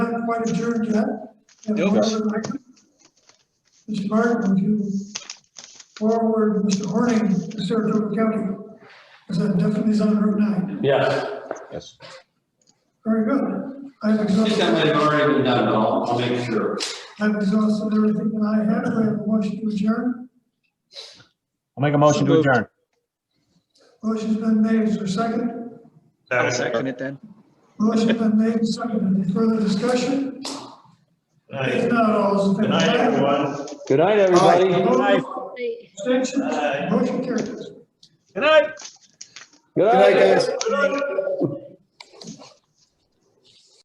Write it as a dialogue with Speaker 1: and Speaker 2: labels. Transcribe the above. Speaker 1: quite adjourned yet. And
Speaker 2: Nope.
Speaker 1: Mr. Martin, Mr. Martin, would you forward Mr. Horning to Saratoga County? Because that definitely is on Route 9.
Speaker 3: Yes.
Speaker 2: Yes.
Speaker 1: Very good. I've
Speaker 3: That might
Speaker 1: exhausted,
Speaker 3: have already been done, but I'll, I'll make sure.
Speaker 1: I've exhausted everything that I had. If I have a motion to adjourn,
Speaker 4: I'll make a motion to
Speaker 2: moved.
Speaker 4: adjourn.
Speaker 1: motion's been made. Is there a second?
Speaker 5: I'll
Speaker 2: second it then.
Speaker 1: Motion's been made, and seconded. Any further discussion? If not, all those in favor?
Speaker 5: Good night, everyone.
Speaker 6: Good night, everybody.
Speaker 1: Opposed?
Speaker 4: Aye.
Speaker 1: Abstentions?
Speaker 5: Aye.
Speaker 1: Motion carries.
Speaker 6: Good night.
Speaker 7: Good night, guys.
Speaker 1: Good